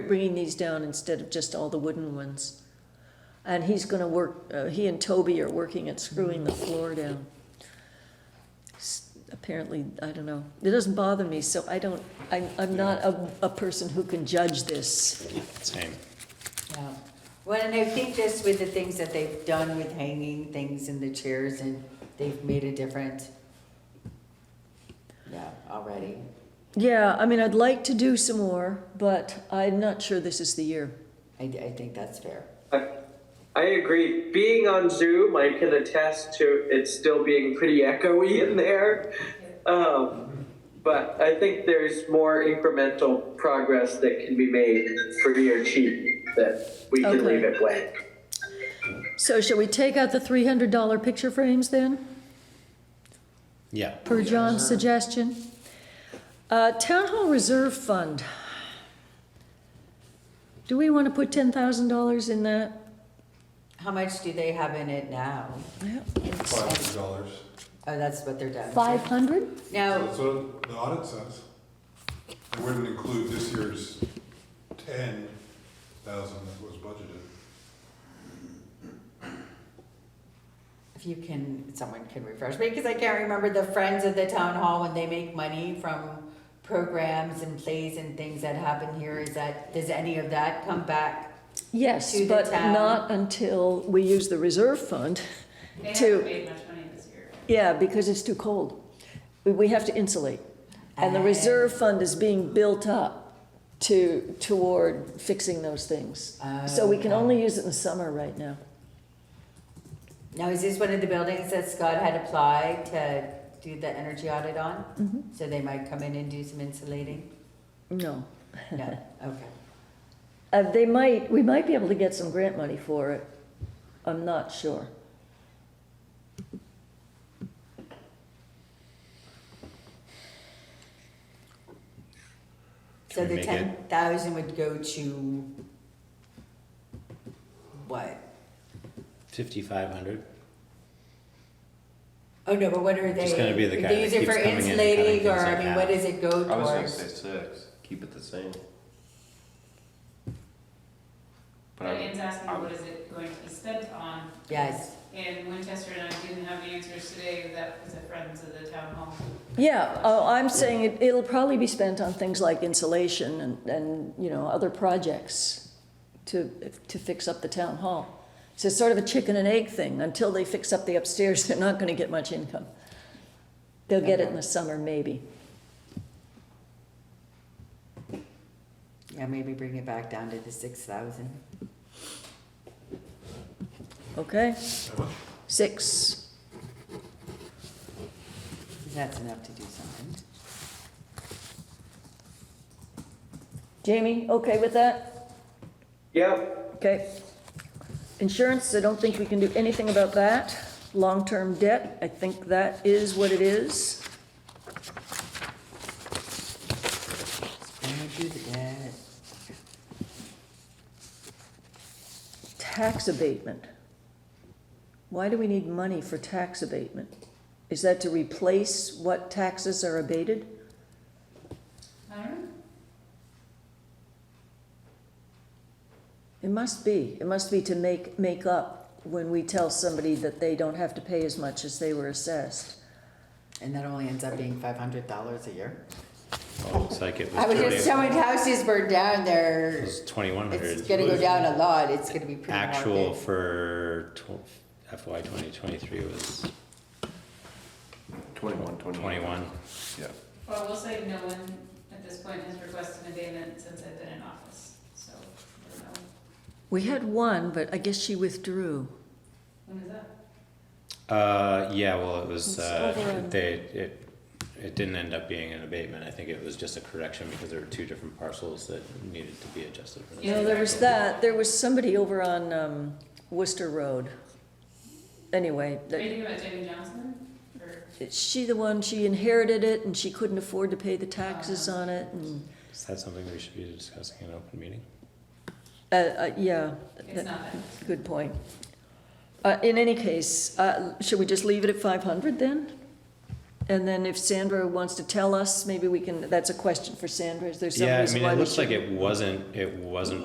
bringing these down instead of just all the wooden ones. And he's gonna work, uh, he and Toby are working at screwing the floor down. S- Apparently, I don't know, it doesn't bother me, so I don't, I, I'm not a, a person who can judge this. Same. Yeah. Well, and I think just with the things that they've done with hanging things in the chairs and they've made a difference. Yeah, already. Yeah, I mean, I'd like to do some more, but I'm not sure this is the year. I, I think that's fair. I I agree. Being on Zoom, I can attest to it still being pretty echoey in there. Um, but I think there's more incremental progress that can be made free or cheap that we can Okay. leave it blank. So shall we take out the three hundred dollar picture frames then, Yeah. per John's suggestion? Uh, Town Hall Reserve Fund. Do we want to put ten thousand dollars in that? How much do they have in it now? Five hundred dollars. Oh, that's what they're done. Five hundred? Now, That's what the audit says. It wouldn't include this year's ten thousand that was budgeted. if you can, someone can refresh me, because I can't remember the friends of the town hall when they make money from programs and plays and things that happen here, is that, does any of that come back? Yes, To the but town. not until we use the reserve fund They haven't to, made much money this year. yeah, because it's too cold. We- We have to insulate. And the Ah. reserve fund is being built up to, toward fixing those things. So Oh, we can Okay. only use it in the summer right now. Now, is this one of the buildings that Scott had applied to do the energy audit on? So they might come in and do some insulating? No. No, okay. Uh, they might, we might be able to get some grant money for it. I'm not sure. So Can we the make it- ten thousand would go to what? Fifty-five hundred. Oh, no, but what are they? Just gonna be the guy They that use it keeps for coming in and insulating, cutting or, things I in mean, what half. does it go I was gonna say towards? six, keep it the same. But But I, Ian's asking, what is it going to be spent on? Yes, And Winchester and I didn't have answers today, that was the friends of the town hall. Yeah, oh, I'm saying it, it'll probably be spent on things like insulation and, and, you know, other projects to, to fix up the town hall. So it's sort of a chicken and egg thing. Until they fix up the upstairs, they're not gonna get much income. They'll get it in the summer, maybe. yeah, maybe bring it back down to the six thousand. Okay? Six. That's enough to do something. Jamie, okay with that? Yep. Okay. Insurance, I don't think we can do anything about that. Long-term debt, I think that is what it is. Yeah, do the debt. Tax abatement. Why do we need money for tax abatement? Is that to replace what taxes are abated? I don't know. It must be. It must be to make, make up when we tell somebody that they don't have to pay as much as they were assessed. And that only ends up being five hundred dollars a year. Oh, looks like it was I was just, so twenty, many houses burned down it there, was twenty-one it's hundred. gonna go down a lot, it's gonna be pretty Actual market. for tw- FY twenty twenty-three was twenty-one, twenty-one, twenty-one. yeah. Well, we'll say no one at this point has requested an abatement since I've been in office, so, I don't know. We had one, but I guess she withdrew. When is that? Uh, yeah, well, it was, It's over uh, on- they, it, it didn't end up being an abatement. I think it was just a correction because there were two different parcels that needed to be adjusted for the No, there was that. There was somebody over on um, Worcester Road. Anyway, Are you that- thinking about Jamie Johnson? Or, is she the one, she inherited it and she couldn't afford to pay the taxes on it and, Is that something we should be discussing in an open meeting? uh, uh, yeah. it's not that. Good point. Uh, in any case, uh, should we just leave it at five hundred then? And then if Sandra wants to tell us, maybe we can, that's a question for Sandra, is there some Yeah, I reason mean, why it we looks should? like it wasn't, it wasn't